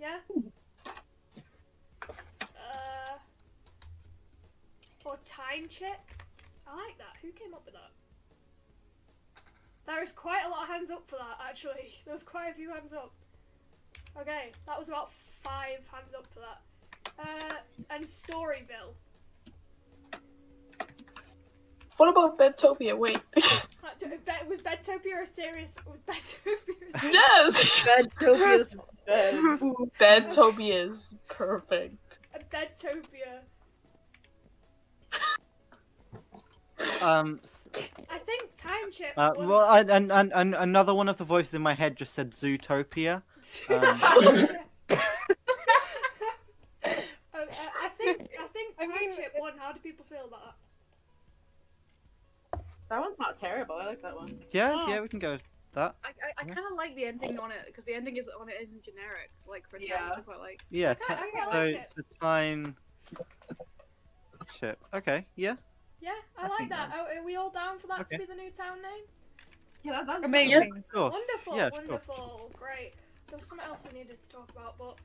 Uh, Brain check. I like that. Who came up with that? There is quite a lot of hands up for that, actually. There was quite a few hands up. Okay, that was about five hands up for that. Uh, and Storyville. What about Bedtopia? Wait. That d- Be- Was Bedtopia a serious? Was Bedtopia? a- yes! Bedtopia's Ooh, Bedtopia is perfect. A Bedtopia. Um, I think time chip. uh, was- well, and, and, and, and another one of the voices in my head just said Zootopia. Zootopia. Oh, uh, I think I think I time mean- chip won. How do people feel about that? That one's not terrible. I like that one. Yeah, Oh. yeah, we can go with that. I, I, I kind of like the ending on it because the ending is on it isn't generic like for a Yeah. yeah. I quite like. Yeah, Okay, ti- okay, I so, like it. so time chip. Okay, yeah. Yeah, I, I like think that. Oh, are we all down for that Okay. to be the new town name? Yeah, that, that's Amazing. Sure. Wonderful, yeah, sure. wonderful, great. There was something else we needed to talk about, but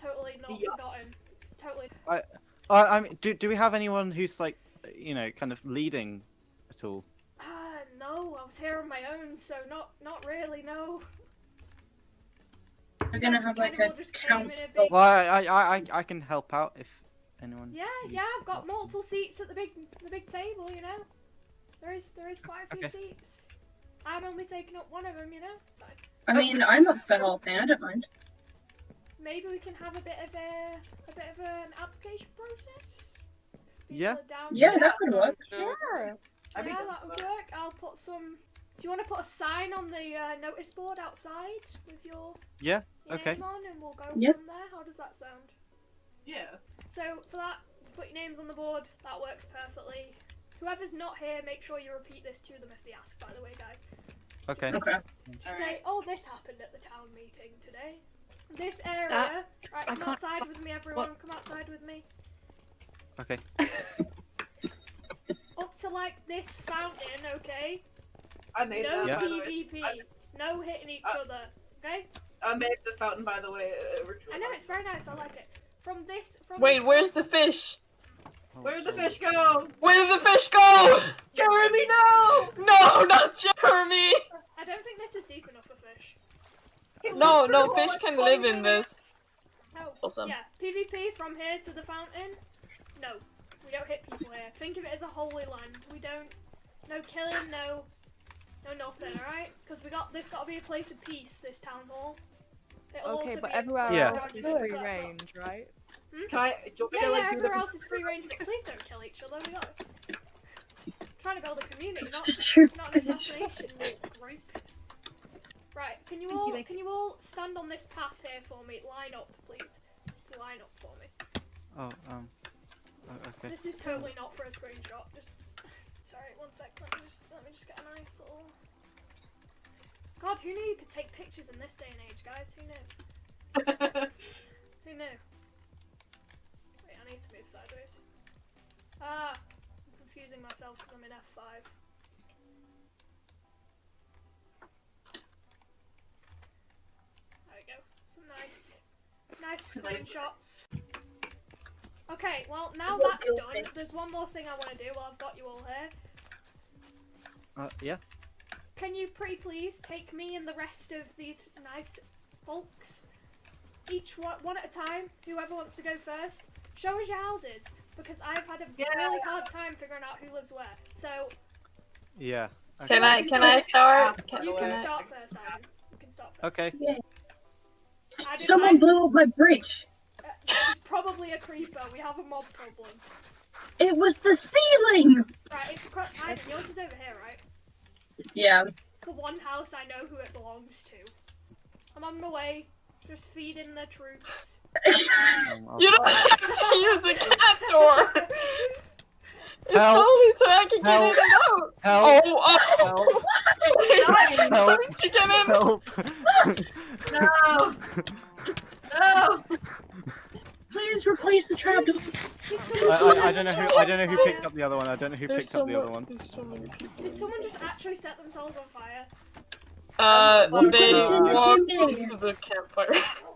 totally not Yes. forgotten. It's totally. I, I mean, do, do we have anyone who's like, you know, kind of leading at all? Ah, no, I was here on my own, so not not really. No. We're gonna Yes, have we like kinda a all just came in a council. big- Well, I, I, I, I- I can help out if anyone. Yeah, yeah, I've got multiple seats at the big the big table. You know, there is there is quite a few seats. I'm only taking up one of them. You know, so I mean, I'm up for helping. I don't mind. maybe we can have a bit of a a bit of an application process. People Yeah. are down for Yeah, that could work. Sure. I'd be yeah, down that for would that. work. I'll put some. Do you want to put a sign on the uh, notice board outside with your Yeah, your okay. name on, and we'll go Yep. from there? How does that sound? Yeah. So for that, put your names on the board. That works perfectly. Whoever's not here, make sure you repeat this to them if they ask. By the way, guys, Okay. Okay. All Just say, right. "Oh, this happened at the town meeting today. This area." right, I come can't- outside with me, everyone. Come outside with me. Okay. Up to like this fountain, okay? I made No that. By the way. PvP. No hitting each Uh, I- other. Okay? I made the fountain. By the way. uh, It, it worked I really know well. it's very nice. I like it. From this, from Wait, this where's the fish? Oh, Where'd the so- fish go? Where did the fish go? Jeremy, no! No, not Jeremy! I don't think this is deep enough for fish. No, no, fish can live in this. Oh, Awesome. yeah. PvP from here to the fountain. No, we don't hit people here. Think of it as a holy land. We don't. No killing. No. No nothing. All right? Because we got this. Got to be a place of peace. This town hall. It'll Okay, also but be a- everywhere Yeah. else is That's free not- range, right? Can I? Do you want me Yeah, to, yeah, like, do the- everywhere else is free range, but please don't kill each other. We got trying to build a community, not It's true. not an assassination group. Right, can you Thank you, all thank can you all stand on this path here for me? Line up, please. Just line up for me. Oh, um. oh, okay. This is totally not for a screenshot. Just sorry, one sec. Let me just let me just get a nice little. God, who knew you could take pictures in this day and age, guys? Who knew? Who knew? Wait, I need to move sideways. Ah, I'm confusing myself because I'm in F5. There we go. Some nice, nice Nice. screenshots. Okay, well now Well, that's you'll done. take- There's one more thing I want to do while I've got you all here. Uh, yeah. Can you pretty please take me and the rest of these nice folks, each one, one at a time, whoever wants to go first, show us your houses, because I've had a really hard time figuring out who lives where. So Yeah. Okay. Can I can I start? Can, you can can I? start first, Adam. You can start first. Okay. I didn't Someone like- blew up my bridge. uh, It's probably a creeper. We have a mob problem. It was the ceiling. Right, it's a cr- Adam, yours is over here, right? Yeah. It's the one house I know who it belongs to. I'm on my way, just feeding the troops. Um, I'll- You don't have to use the cat door. It's Help. only so I can get Help. in and out. Help! Oh, oh. Help! Why Help. didn't you get in? Help! no! No! Please replace the trapdoor. Did I, someone just I, I don't know who I don't know who picked up the other one. I don't know who There's picked so up the other mu- one. There's so many people. Did someone just actually set themselves on fire? Uh, Um, they Welcome walked to the to the campfire.